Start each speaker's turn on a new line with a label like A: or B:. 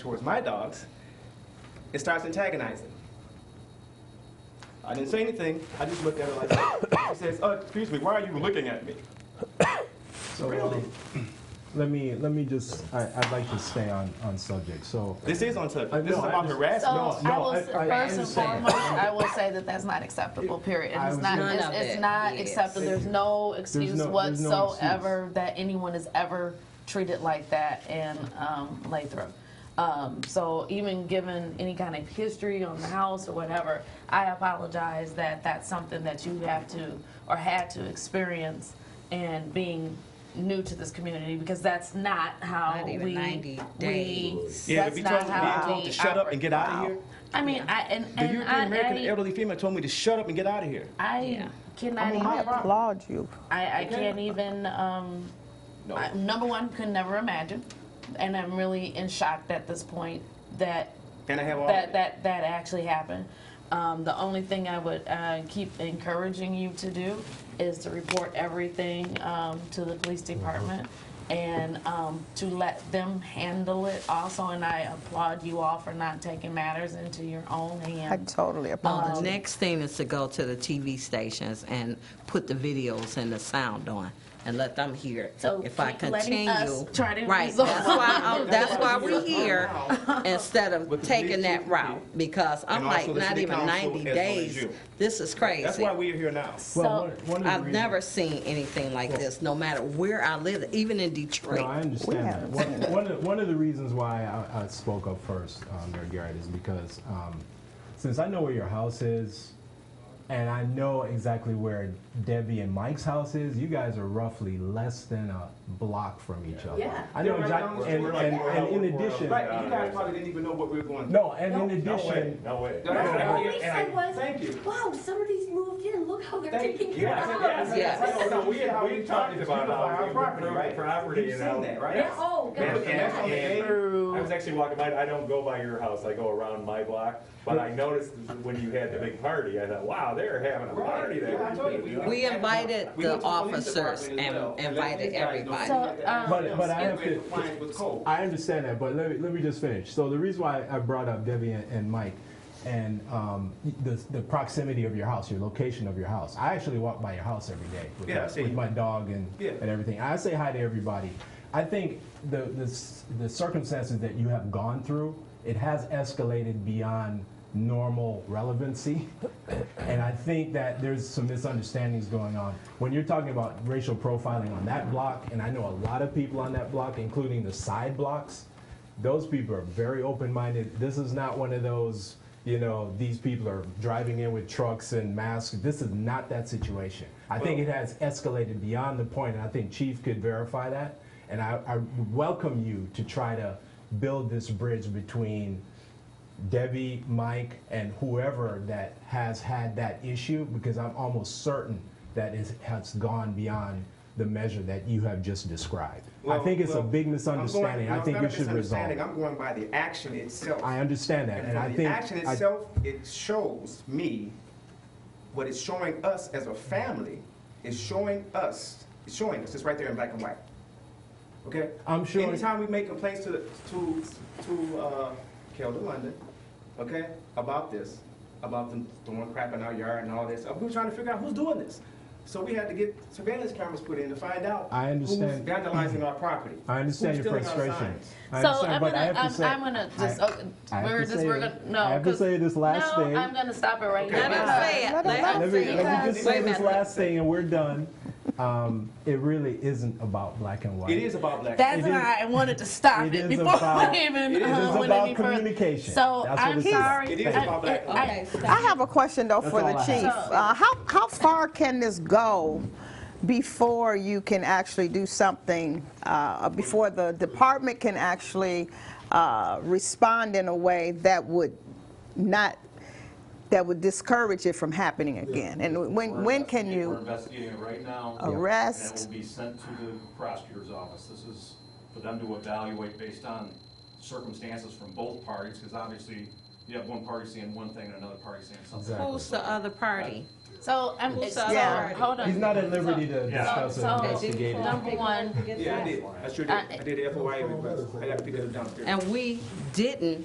A: towards my dogs, it starts antagonizing. I didn't say anything. I just looked at her like that. She says, oh, excuse me, why are you looking at me?
B: So,
A: Really?
B: um, let me let me just. I, I'd like to stay on on subject. So.
A: This is on
B: I
A: subject. This is
B: know, I
A: about
B: just-
A: harassment.
C: So
B: no,
C: I will,
B: I-
C: s-
B: I
C: first and
B: understand.
C: foremost, I will say that that's not acceptable, period.
B: I
C: It's
B: was
C: not,
B: gonna-
C: it's,
D: None of
C: it's
D: it
C: not
D: is.
C: acceptable. There's no excuse
B: no- there's no
C: whatsoever that anyone is ever treated like that in, um, Lathrop. Um, so even given any kind of history on the house or whatever, I apologize that that's something that you have to, or had to experience and being new to this community, because that's not how
D: Not
C: we,
D: even 90
C: we,
D: days.
A: Yeah, to
C: that's
A: be
C: not
A: told, being
C: how
A: told
C: we
A: to shut up and get out of
C: operate.
A: here.
C: I mean, I and,
A: The
C: and
A: European American
C: I,
A: elderly female told me to shut up and get out of here.
C: I, I
D: Yeah.
C: cannot even.
E: applaud you.
C: I, I can't even. Um,
A: No.
C: I, number one, could never imagine, and I'm really in shock at this point that
A: Can I have all
C: that that that actually happened. Um, the only thing I would uh, keep encouraging you to do is to report everything um, to the police
A: Mm-hmm.
C: department and um, to let them handle it also. And I applaud you all for not taking matters into your own
E: I
C: hands.
B: Oh,
E: totally
D: Well,
E: applaud
D: Oh,
C: Um,
D: the
E: you.
D: next thing is to go to the TV stations and put the videos and the sound on and let them hear. it.
C: So
D: If I
C: keep letting
D: continue.
C: us try to
D: Right,
C: resolve-
D: that's why, I'm- that's why we're here, instead of
A: With the
D: taking
A: police
D: that
A: chief,
D: route, because I'm
A: and also
D: like,
A: the
D: not
A: city
D: even
A: council
D: ninety
A: as well as
D: days.
A: you.
D: This is crazy.
A: That's why we are here now.
B: Well,
C: So,
B: one, one of the
D: I've
B: reasons-
D: never seen anything like this, no matter where I live, even in
B: No, I
D: Detroit.
B: understand that.
E: haven't
B: One, one, of, one of the reasons why I, I spoke up first, um, Mayor Garrett, is because um, since I know where your house is, and I know exactly where Debbie and Mike's house is, you guys are roughly less than a block from each other.
C: Yeah.
B: I know
A: They're right down the
B: exactly. And,
A: street.
B: and, and in addition,
A: Right, you guys probably didn't even know what we were going through.
B: no, and in addition,
F: No way.
A: No, no, no.
G: All we said was,
A: Thank you.
G: wow, somebody's moved in, look how they're
A: Thank you.
G: taking care
F: Yeah,
G: of
F: I said-
G: us.
F: yeah, I
D: Yes.
F: said- no, no, we,
A: How
F: we talked about
A: beautify
B: uh,
F: how we
A: property, right?
F: improve property,
A: You've
F: you
A: seen
B: um,
F: know.
A: that, right?
G: Yeah, oh,
A: And-
G: God.
A: and that's on the
F: And-
A: game.
F: I was actually walking by, I don't go by your house, I go around my block, but I noticed when you had the big party, I thought, wow, they're having a party there.
A: Yeah, I told you, we-
D: We invited
A: We went
D: the
A: to police
D: officers
A: department as well,
D: and
A: and let
D: invited
A: these guys know.
D: everybody.
C: So, um,
B: But- but I have
A: Skip
B: to-
A: with compliance with code.
B: I understand that, but let me, let me just finish. So the reason why I brought up Debbie and, and Mike and um, the, the proximity of your house, your location of your house. I actually walk by your house every day with,
A: Yeah, I
B: my,
A: see
B: with
A: you.
B: my dog and,
A: Yeah.
B: and everything. I say hi to everybody. I think the, the, s- the circumstances that you have gone through, it has escalated beyond normal relevancy. And I think that there's some misunderstandings going on. When you're talking about racial profiling on that block, and I know a lot of people on that block, including the side blocks, those people are very open minded. This is not one of those, you know, these people are driving in with trucks and masks. This is not that situation. I think it has escalated beyond the point, and I think Chief could verify that. And I, I welcome you to try to build this bridge between Debbie, Mike, and whoever that has had that issue, because I'm almost certain that it has gone beyond the measure that you have just described. I think it's
A: Well,
B: a big
A: well,
B: misunderstanding.
A: I'm
B: I think
A: going- no,
B: we should
A: it's not a
B: resolve.
A: misunderstanding.
B: it.
A: I'm going by the action itself.
B: I understand that, and
A: from
B: I
A: the
B: think
A: action
B: I-
A: itself, it shows me what it's showing us as a family is showing us. It's showing us. It's right there in black and white. Okay.
B: I'm showing-
A: Anytime we make complaints to to to uh, Kelda London, okay, about this, about them throwing crap in our yard and all this, we were trying to figure out who's doing this. So we had to get surveillance cameras put in to find out
B: I understand.
A: who's vandalizing our property.
B: I understand
A: who's
B: your
A: stealing our
B: frustration.
A: signs.
B: I
C: So
B: understand,
C: I'm
B: but I
C: gonna,
B: have to
C: I'm,
B: say-
C: I'm gonna just,
B: I-
C: okay,
B: I have
C: we're
B: to
C: just,
B: say
C: we're
B: this.
C: gonna, no.
B: I have to
C: 'cause-
B: say this last
C: no,
B: thing.
C: I'm gonna stop it right now.
D: Let him say it.
E: Let 'em
D: Let 'em
B: Let me,
E: say it.
C: Because-
B: let me just
D: Wait
B: say
D: a
B: this
D: minute.
B: last thing, and we're done. Um, it really isn't about black and white.
A: It is about black.
C: That's
B: It is-
C: why I wanted to stop
B: it
C: it,
B: is
C: before
B: about-
C: I even
A: it is
C: uh, went
B: about
C: any further.
B: communication.
C: So
B: That's what
C: I'm
B: it's about.
C: sorry.
A: It is
C: I-
A: about black.
C: I-
D: Okay, stop.
E: I have a question though for
B: all
E: the
B: I have.
E: chief.
C: So-
E: Uh, How, how far can this go before you can actually do something, uh, before the department can actually uh, respond in a way that would not, that would discourage it from happening again? And when,
H: We're
E: when can
H: investigating- We're
E: you
H: investigating it right now. And it
E: arrest?
H: will be sent to the prosecutor's office. This is for them to evaluate based on circumstances from both parties, because obviously, you have one party saying one thing and another party saying something.
B: Exactly.
D: Who's the other party?
C: So I'm
D: Who's
C: so,
D: the
E: other
C: hold on.
B: He's not at liberty to
H: Yeah.
B: discuss
C: So-
B: an
C: so-
B: investigative.
C: Number one.
A: Yeah, I did. I sure did. I did the FOIA request. I got to pick it up downstairs.
D: And we didn't